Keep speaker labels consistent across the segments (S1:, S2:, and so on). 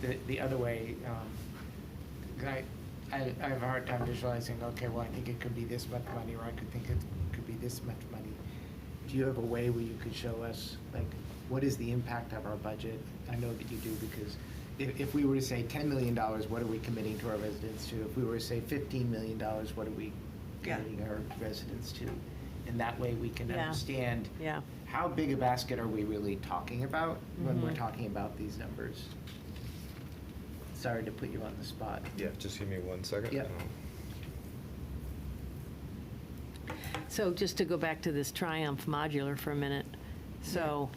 S1: The, the other way, um, 'cause I, I, I have a hard time visualizing, okay, well, I think it could be this much money, or I could think it could be this much money. Do you have a way where you could show us, like, what is the impact of our budget? I know that you do, because if, if we were to say ten million dollars, what are we committing to our residents to? If we were to say fifteen million dollars, what are we
S2: Yeah.
S1: committing our residents to? And that way, we can
S3: Yeah.
S1: understand
S3: Yeah.
S1: how big a basket are we really talking about when we're
S3: Mhm.
S1: talking about these numbers? Sorry to put you on the spot.
S4: Yeah, just give me one second. Um,
S1: Yeah.
S3: So just to go back to this Triumph modular for a minute, so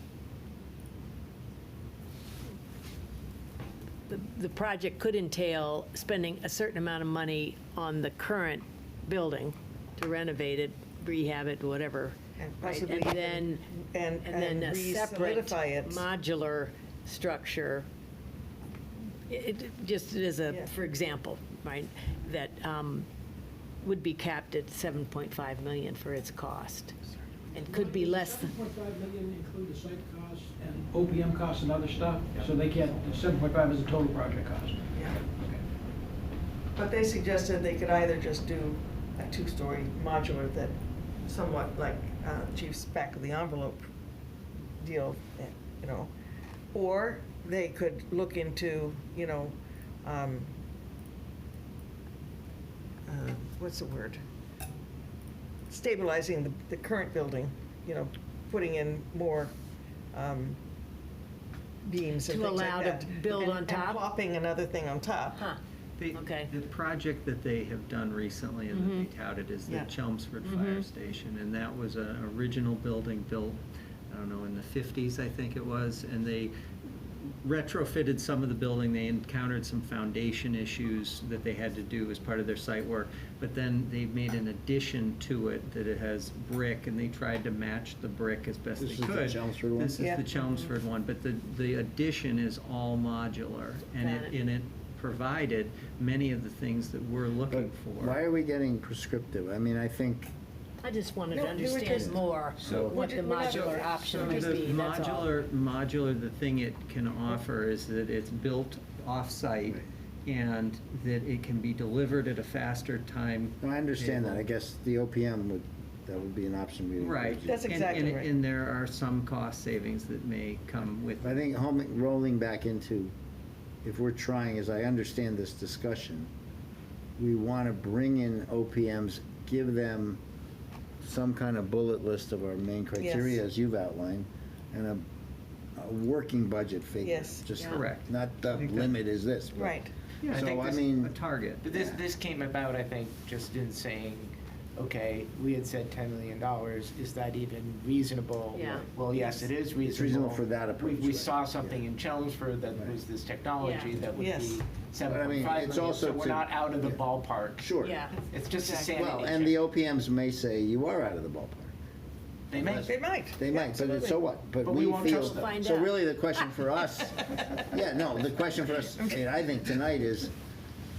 S3: the, the project could entail spending a certain amount of money on the current building to renovate it, rehab it, whatever.
S2: And
S3: right?
S2: possibly
S3: And
S2: even-
S3: then,
S2: and-
S3: and
S2: and
S3: then a separate
S2: re-solidify it.
S3: modular structure it, it- just as a,
S2: Yeah.
S3: for example, right, that um, would be capped at 7.5 million for its cost, and could be less than,
S5: Seven point five million include the site costs and OPM costs and other stuff, so they can't, seven point five is the total project cost.
S2: Yeah.
S5: Okay.
S2: But they suggested they could either just do a two-story modular that somewhat like uh, Chief's back of the envelope deal, eh, you know, or they could look into, you know, um, uh, what's the word? Stabilizing the, the current building, you know, putting in more um, beams and
S3: To
S2: things like
S3: allow to
S2: that.
S3: build
S2: And-
S3: on top?
S2: And plopping another thing on top.
S3: huh,
S6: The-
S3: Okay.
S6: The project that they have done recently and that they touted is
S2: Mm-hmm.
S6: the
S2: Yeah. Mm-hmm.
S6: Chelmsford Fire Station. And that was an original building built, I don't know, in the 50s, I think it was. And they retrofitted some of the building. They encountered some foundation issues that they had to do as part of their site work. But then they made an addition to it that it has brick and they tried to match the brick as best they
S7: This
S6: could.
S7: is the Chelmsford one?
S6: This is
S2: Yeah.
S6: the Chelmsford one, but the, the addition is all modular. And
S3: Got
S6: it,
S3: it.
S6: and it provided many of the things that we're looking for.
S7: Why are we getting prescriptive? I mean, I think,
S3: I just wanted
S2: No,
S3: to
S2: they were
S3: understand
S2: just-
S3: more
S7: So-
S3: what the
S2: We're not-
S3: modular option
S2: so
S3: might
S6: The
S3: be, that's all.
S6: modular, modular, the thing it can offer is that it's built off-site
S7: Right.
S6: and that it can be delivered at a faster time.
S7: no, I understand that. I
S6: table.
S7: guess the OPM would, that would be an option we would.
S6: Right.
S7: use.
S2: That's
S6: And-
S2: exactly
S6: and-
S2: right.
S6: And there are some cost savings that may come with
S7: I think home, rolling back into, if we're trying, as I understand this discussion, we want to bring in OPMs, give them some kind of bullet list of our main criteria, as you've outlined, and a, a working budget figure.
S2: Yes.
S7: Just
S6: Correct.
S7: Not the
S6: I think that-
S7: limit is this. but-
S2: Right.
S6: Yeah, I
S7: So,
S6: think
S7: I
S6: this-
S7: mean-
S6: a target.
S1: But this, this came about, I think, just in saying, okay, we had said ten million dollars, is that even reasonable?
S3: Yeah.
S1: Well, yes, it is reasonable.
S7: It's reasonable for that
S1: We-
S7: approach,
S1: We
S7: right,
S1: saw something
S7: yeah.
S1: in Chelmsford that
S7: Right.
S1: was this technology
S3: Yeah.
S1: that would
S2: Yes.
S1: be
S7: But I
S1: seven
S7: mean,
S1: point five
S7: it's
S1: million,
S7: also
S1: so we're
S7: to-
S1: not out of the
S7: yeah.
S1: ballpark.
S7: Sure.
S3: Yeah,
S1: It's just a
S2: Exactly.
S1: sanity
S7: Well, and the
S1: check.
S7: OPMs may say you are out of the ballpark.
S1: They may.
S2: They might.
S7: They might, but it's so what?
S1: But we won't
S7: feel-
S1: trust them.
S3: Find
S7: So
S3: out.
S7: really, the question for us, yeah, no, the question for us, I mean, I think tonight is,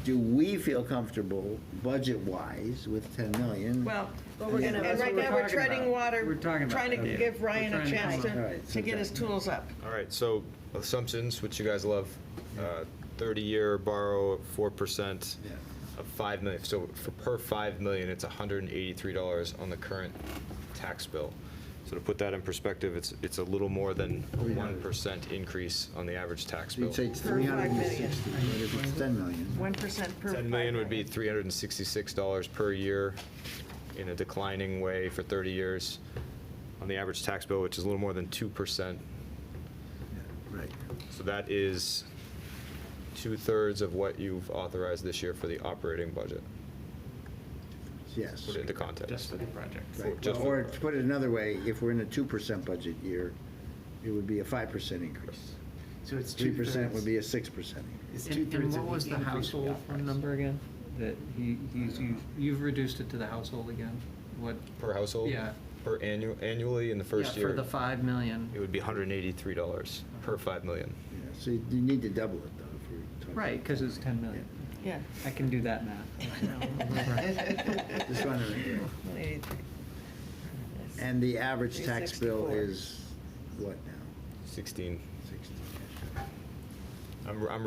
S7: do we feel comfortable budget-wise with 10 million?
S2: Well,
S3: But we're gonna-
S2: and
S3: that's
S2: right
S3: what we're
S2: now, we're
S6: talking about.
S2: treading water.
S6: We're talking about
S2: Trying
S6: that,
S2: to
S6: yeah.
S2: give
S6: We're
S2: Ryan a
S6: trying to
S2: chance
S6: come
S7: up- All
S2: to,
S7: right,
S2: to get his tools up.
S4: All right, so assumptions, which you guys love, uh, 30-year borrow at 4%
S7: Yeah.
S4: of 5 million. So for per 5 million, it's $183 on the current tax bill. So to put that in perspective, it's, it's a little more than a 1% increase on the average tax
S7: So
S4: bill.
S7: you'd say it's
S2: Per five million.
S7: 360, but if it's 10 million,
S2: One percent per.
S4: 10 million would be $366 per year in a declining way for 30 years on the average tax bill, which is a little more than 2%.
S7: right.
S4: So that is two-thirds of what you've authorized this year for the operating budget,
S7: Yes.
S4: put it into context.
S1: the project.
S4: For-
S7: Right.
S4: just
S7: Or
S4: for-
S7: to put it another way, if we're in a 2% budget year, it would be a 5% increase.
S1: So it's two
S7: 3% would be a 6%
S1: It's
S7: increase.
S6: And- And
S1: two-thirds of
S6: what
S1: the
S6: was the
S1: increase we
S6: household
S1: authorized.
S6: phone number again? That he, he's, you've, you've reduced it to the household again? What?
S4: Per household?
S6: Yeah.
S4: Per annual, annually in the Oh, first
S6: Yeah,
S4: year?
S6: For the five million.
S4: It would be $183 per 5 million.
S7: Yeah, So you you need to double it, though, if you're talking.
S6: Right, because it's ten million.
S2: Yeah.
S6: I can do that math.
S7: Just wondering. And the average tax bill
S2: 364.
S7: is what now?
S4: 16.
S7: 16.
S4: I'm, I'm